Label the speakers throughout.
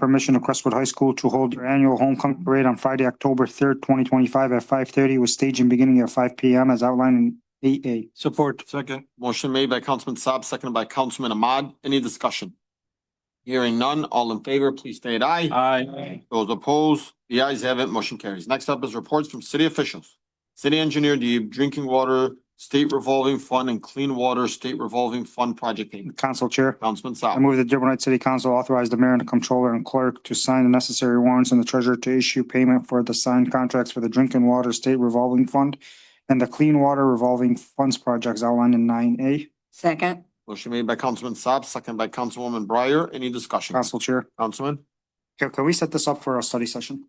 Speaker 1: permission of Crestwood High School to hold their annual homecoming parade on Friday, October third, twenty twenty-five at five thirty with staging beginning at five P M as outlined in eight A.
Speaker 2: Support.
Speaker 3: Second. Motion made by Councilman Saab, seconded by Councilman Ahmad. Any discussion? Hearing none, all in favor, please state aye.
Speaker 2: Aye.
Speaker 3: Those opposed, the ayes have it, motion carries. Next up is reports from city officials. City engineer, the drinking water state revolving fund and clean water state revolving fund project payment.
Speaker 1: Council Chair.
Speaker 3: Councilman
Speaker 1: I
Speaker 3: Saab.
Speaker 1: move the Dearborn Heights City Council authorize the mayor and the comptroller and clerk to sign the necessary warrants and the treasurer to issue payment for the signed contracts for the Drinking Water State Revolving Fund and the Clean Water Revolving Funds projects outlined in nine A.
Speaker 4: second,
Speaker 3: Motion made by Councilman Saab, seconded by Councilwoman Breyer. Any discussion?
Speaker 1: Council Chair,
Speaker 3: Councilman?
Speaker 1: can, can we set this up for a study session?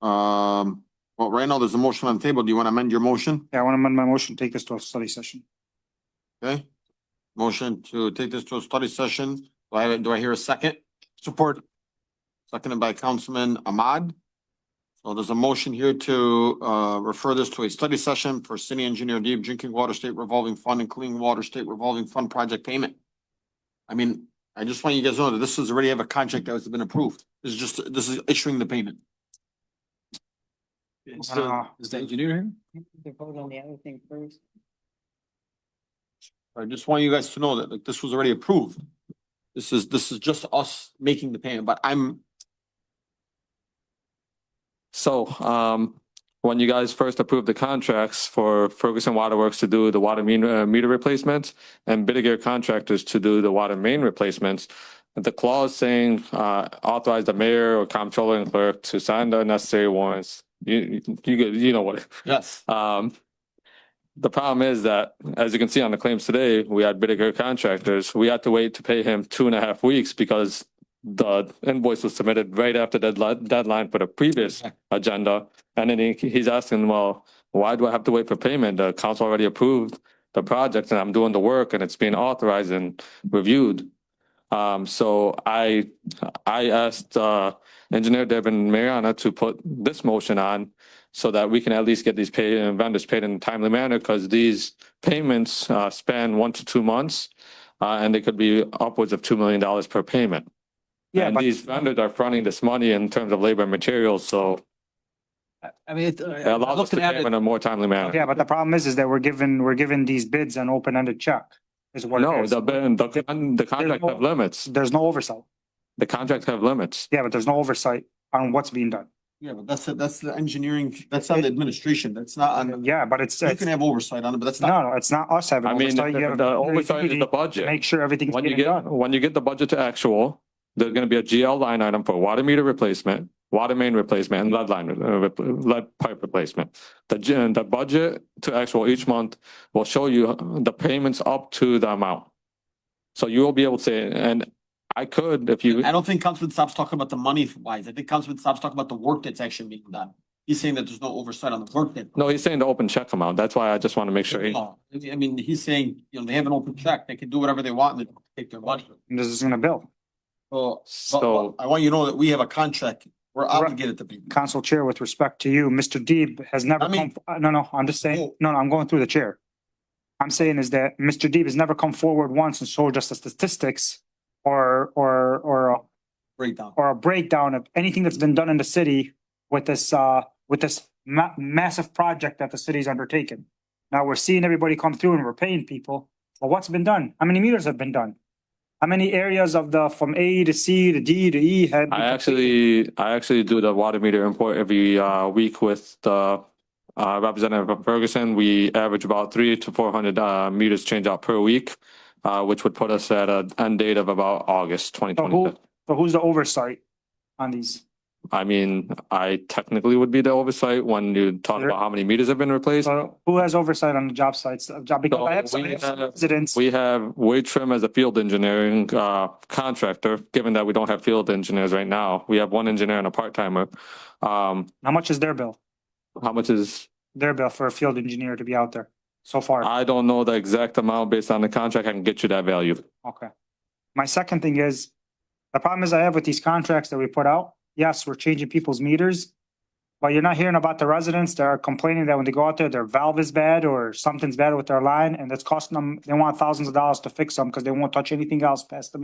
Speaker 3: Um, well, right now, there's a motion on the table. Do you want to amend your motion?
Speaker 1: Yeah, I want to amend my motion, take this to a study session.
Speaker 3: Okay. Motion to take this to a study session. Do I, do I hear a second? Support. Seconded by Councilman Ahmad. So there's a motion here to, uh, refer this to a study session for city engineer deep drinking water state revolving fund and clean water state revolving fund project payment. I mean, I just want you guys to know that this is already have a contract that has been approved. This is just, this is issuing the payment.
Speaker 2: Is
Speaker 1: Uh,
Speaker 2: the is the engineer here?
Speaker 3: I just want you guys to know that, like, this was already approved. This is, this is just us making the payment, but I'm,
Speaker 5: So, um, when you guys first approved the contracts for Ferguson Waterworks to do the water mean, uh, meter replacements and Bidiger Contractors to do the water main replacements, the clause saying, uh, authorize the mayor or comptroller and clerk to sign the necessary warrants. You, you- you, get- you know what,
Speaker 3: yes.
Speaker 5: um, the problem is that, as you can see on the claims today, we had Bidiger contractors. We had to wait to pay him two and a half weeks because the invoice was submitted right after deadline, deadline for the previous agenda. And then he, he's asking, well, why do I have to wait for payment? The council already approved the project and I'm doing the work and it's being authorized and reviewed. Um, so I, I asked, uh, engineer Devin Mariana to put this motion on so that we can at least get these paid and vendors paid in a timely manner because these payments uh, span one to two months uh, and they could be upwards of two million dollars per payment.
Speaker 2: Yeah,
Speaker 5: and
Speaker 2: but
Speaker 5: these vendors are fronting this money in terms of labor and materials, so
Speaker 2: I- I mean, it-
Speaker 5: it
Speaker 2: I
Speaker 5: allows us
Speaker 2: looked
Speaker 5: to pay
Speaker 2: at
Speaker 5: them in
Speaker 2: it.
Speaker 5: a more timely manner.
Speaker 1: Yeah, but the problem is, is that we're given, we're given these bids an open-ended check is what it
Speaker 5: No,
Speaker 1: is.
Speaker 5: the the con- the contract have limits.
Speaker 1: There's no oversight.
Speaker 5: The contracts have limits.
Speaker 1: Yeah, but there's no oversight on what's being done.
Speaker 3: Yeah, but that's, the- that's the engineering, that's not the administration, that's not on, the-
Speaker 1: Yeah, but it's,
Speaker 3: you
Speaker 1: it's,
Speaker 3: can
Speaker 1: no,
Speaker 3: have oversight on it, but that's not.
Speaker 1: no, it's not us having
Speaker 5: I mean,
Speaker 1: oversight. You
Speaker 5: the
Speaker 1: have
Speaker 5: the
Speaker 1: a
Speaker 5: oversight is
Speaker 1: duty
Speaker 5: the
Speaker 1: to
Speaker 5: budget.
Speaker 1: Make sure everything's
Speaker 5: When you
Speaker 1: getting
Speaker 5: get,
Speaker 1: done.
Speaker 5: when you get the budget to actual, there's gonna be a GL line item for water meter replacement, water main replacement, and lead line, uh, rep- lead pipe replacement. The, gen- the budget to actual each month will show you uh, the payments up to the amount. So you will be able to say, and I could, if you,
Speaker 3: I don't think Councilman Saab's talking about the money wise. I think Councilman Saab's talking about the work that's actually being done. He's saying that there's no oversight on the work that.
Speaker 5: no, he's saying the open check amount. That's why I just want to make sure. he-
Speaker 3: No, I mean, he's saying, you know, they have an open check, they can do whatever they want and they take their money.
Speaker 1: And This is gonna bill.
Speaker 3: So, but- but
Speaker 5: So,
Speaker 3: I want you to know that we have a contract, we're obligated to be.
Speaker 1: Council Chair, with respect to you, Mr. Deeb has never
Speaker 3: I mean-
Speaker 1: come, uh, no, no, I'm just saying,
Speaker 3: Oh.
Speaker 1: no, no, I'm going through the chair. I'm saying is that Mr. Deeb has never come forward once and showed us the statistics or, or, or, a-
Speaker 3: Breakdown.
Speaker 1: or a breakdown of anything that's been done in the city with this, uh, with this ma- massive project that the city's undertaken. Now we're seeing everybody come through and we're paying people, but what's been done? How many meters have been done? How many areas of the, from A to C to D to E had?
Speaker 5: I actually, I actually do the water meter import every uh week with the uh representative of Ferguson. We average about three to four hundred uh meters change out per week. Uh, which would put us at an end date of about August twenty
Speaker 1: So
Speaker 5: twenty.
Speaker 1: who, so who's the oversight on these?
Speaker 5: I mean, I technically would be the oversight when you talk
Speaker 1: Sure.
Speaker 5: about how many meters have been replaced.
Speaker 1: So who has oversight on the job sites, uh, job, because I have
Speaker 5: So
Speaker 1: some
Speaker 5: we
Speaker 1: I have some
Speaker 5: have-
Speaker 1: residents,
Speaker 5: We have Wade Trim as a field engineering uh, contractor, given that we don't have field engineers right now. We have one engineer and a part timer. Um,
Speaker 1: how much is their bill?
Speaker 5: how much is
Speaker 1: Their bill for a field engineer to be out there so far?
Speaker 5: I don't know the exact amount based on the contract. I can get you that value.
Speaker 1: Okay. My second thing is, the problem is I have with these contracts that we put out, yes, we're changing people's meters. But you're not hearing about the residents that are complaining that when they go out there, their valve is bad or something's bad with their line and it's costing them, they want thousands of dollars to fix them because they won't touch anything else past the